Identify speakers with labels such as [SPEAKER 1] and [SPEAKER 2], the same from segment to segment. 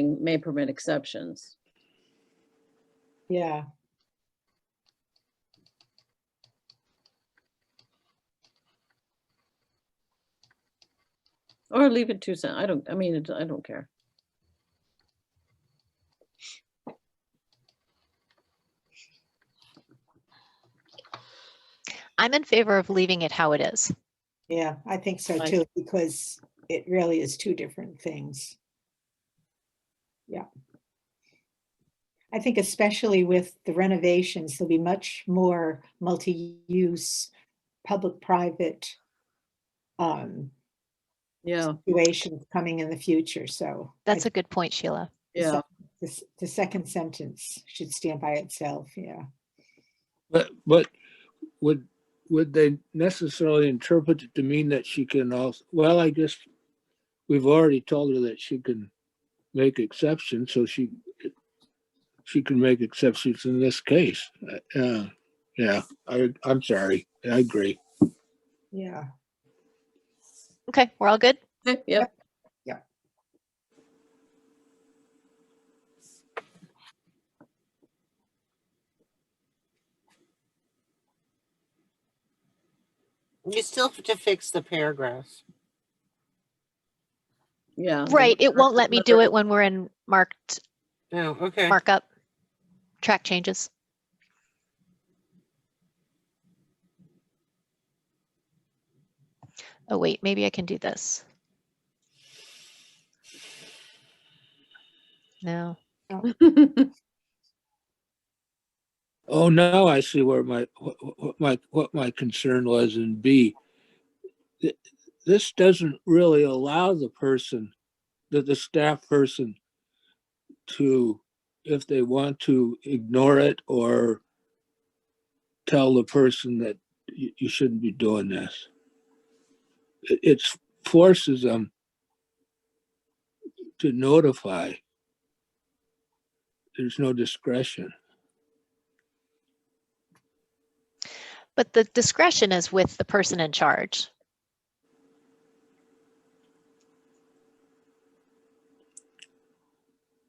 [SPEAKER 1] may permit exceptions.
[SPEAKER 2] Yeah,
[SPEAKER 1] Or leave it two cent, I don't, I mean, it- I don't care.
[SPEAKER 3] I'm in favor of leaving it how it is.
[SPEAKER 2] yeah, I think so
[SPEAKER 1] Like-
[SPEAKER 2] too, because it really is two different things. Yeah. I think especially with the renovations, there'll be much more multi-use, public-private um,
[SPEAKER 1] Yeah,
[SPEAKER 2] situations coming in the future, so. I
[SPEAKER 3] That's a good point, Sheila.
[SPEAKER 2] the
[SPEAKER 1] yeah,
[SPEAKER 2] sec- the s- The second sentence should stand by itself, yeah.
[SPEAKER 4] But, but would, would they necessarily interpret it to mean that she can also, well, I guess we've already told her that she can make exceptions, so she, she can make exceptions in this case. Uh, yeah, I, I'm sorry. I agree.
[SPEAKER 2] Yeah,
[SPEAKER 3] Okay, we're all good?
[SPEAKER 1] Okay, yep,
[SPEAKER 5] You still have to fix the paragraphs.
[SPEAKER 1] yeah. the
[SPEAKER 3] Right, it
[SPEAKER 1] word-
[SPEAKER 3] won't let me do it when we're in marked
[SPEAKER 5] Oh, okay.
[SPEAKER 3] markup, track changes. Oh, wait, maybe I can do this. No,
[SPEAKER 4] Oh, now I see where my, what, what my, what my concern was in B. Th- This doesn't really allow the person, the, the staff person to, if they want to ignore it or tell the person that you, you shouldn't be doing this. It, it forces them to notify. There's no discretion.
[SPEAKER 3] but the discretion is with the person in charge.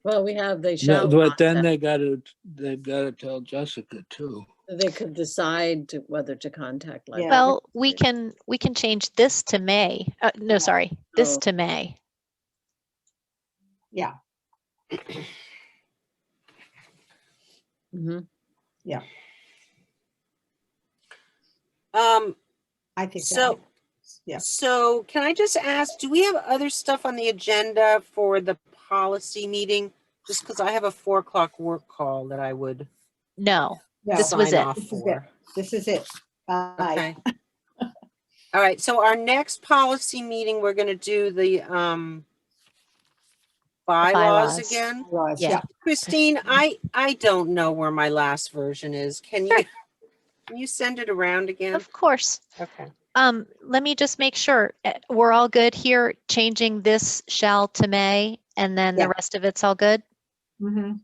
[SPEAKER 1] Well, we have, they
[SPEAKER 4] No,
[SPEAKER 1] shall.
[SPEAKER 4] but
[SPEAKER 1] not,
[SPEAKER 4] then
[SPEAKER 1] that
[SPEAKER 4] they gotta, they've gotta tell Jessica too.
[SPEAKER 1] They could decide to- whether to contact.
[SPEAKER 2] Yeah.
[SPEAKER 1] library.
[SPEAKER 3] Well, we can, we can change this to May. Uh, no, sorry, this
[SPEAKER 1] Oh.
[SPEAKER 3] to May.
[SPEAKER 2] yeah,
[SPEAKER 1] Mhm.
[SPEAKER 5] Um,
[SPEAKER 2] I think. that
[SPEAKER 5] So-
[SPEAKER 2] makes- Yeah,
[SPEAKER 5] so can I just ask, do we have other stuff on the agenda for the policy meeting? Just because I have a four o'clock work call that I would
[SPEAKER 3] No,
[SPEAKER 2] no,
[SPEAKER 3] This was
[SPEAKER 5] sign
[SPEAKER 3] it.
[SPEAKER 5] off
[SPEAKER 2] This is it.
[SPEAKER 5] for.
[SPEAKER 2] this is it. Bye.
[SPEAKER 5] Okay. All right, so our next policy meeting, we're gonna do the, um, bylaws
[SPEAKER 3] bylaws.
[SPEAKER 5] again.
[SPEAKER 2] Laws,
[SPEAKER 3] Yeah.
[SPEAKER 2] yeah.
[SPEAKER 5] Christine, I, I don't know where my last version is. Can you, can you send it around again?
[SPEAKER 3] of course.
[SPEAKER 5] Okay.
[SPEAKER 3] Um, let me just make sure, eh, we're all good here, changing this shall to may, and then the
[SPEAKER 2] Yeah.
[SPEAKER 3] rest of it's all good?
[SPEAKER 2] Mhm.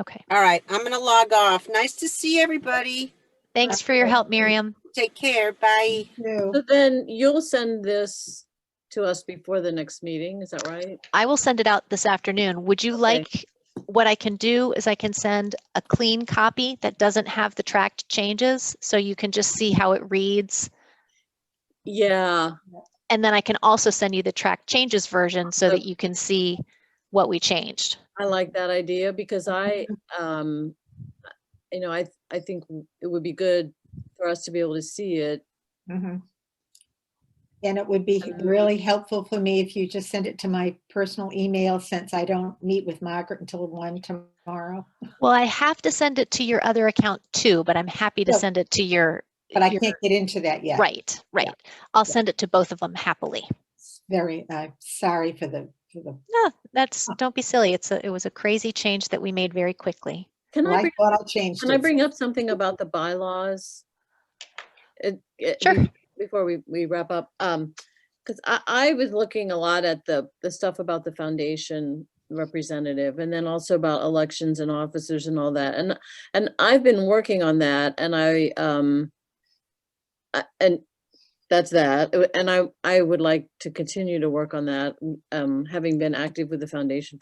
[SPEAKER 3] Okay,
[SPEAKER 5] All right, I'm gonna log off. Nice to see everybody.
[SPEAKER 3] thanks for your help, Miriam.
[SPEAKER 5] Take care. Bye.
[SPEAKER 2] Two.
[SPEAKER 1] So Then you'll send this to us before the next meeting, is that right?
[SPEAKER 3] I will send it out this afternoon. Would you like, what I can do is I can send a clean copy that doesn't have the tracked changes, so you can just see how it reads.
[SPEAKER 1] Yeah,
[SPEAKER 3] And then I can also send you the track changes version so that you can see what we changed.
[SPEAKER 1] I like that idea because I, um, I- you know, I, th- I think w- it would be good for us to be able to see it.
[SPEAKER 2] Mhm. And it would be
[SPEAKER 1] Um,
[SPEAKER 2] really helpful for me if you just send it to my personal email since I don't meet with Margaret until one tomorrow.
[SPEAKER 3] Well, I have to send it to your other account too, but I'm happy to
[SPEAKER 2] Yeah.
[SPEAKER 3] send it to your.
[SPEAKER 2] But I
[SPEAKER 3] your-
[SPEAKER 2] can't get into that yet.
[SPEAKER 3] Right, right. I'll send it to both of them happily.
[SPEAKER 2] Very, uh, sorry for the, for the,
[SPEAKER 3] No, that's, don't be silly. It's a, it was a crazy change that we made very quickly.
[SPEAKER 1] Can
[SPEAKER 2] well,
[SPEAKER 1] I
[SPEAKER 2] I
[SPEAKER 1] bring,
[SPEAKER 2] thought I changed
[SPEAKER 1] can I
[SPEAKER 2] it.
[SPEAKER 1] bring up something about the bylaws? It- it-
[SPEAKER 3] Sure.
[SPEAKER 1] be- Before we, we wrap up, um, because I, I was looking a lot at the, the stuff about the foundation representative and then also about elections and officers and all that. And, and I've been working on that and I, um, I- and that's that. Uh, And I, I would like to continue to work on that, um, having been active with the foundation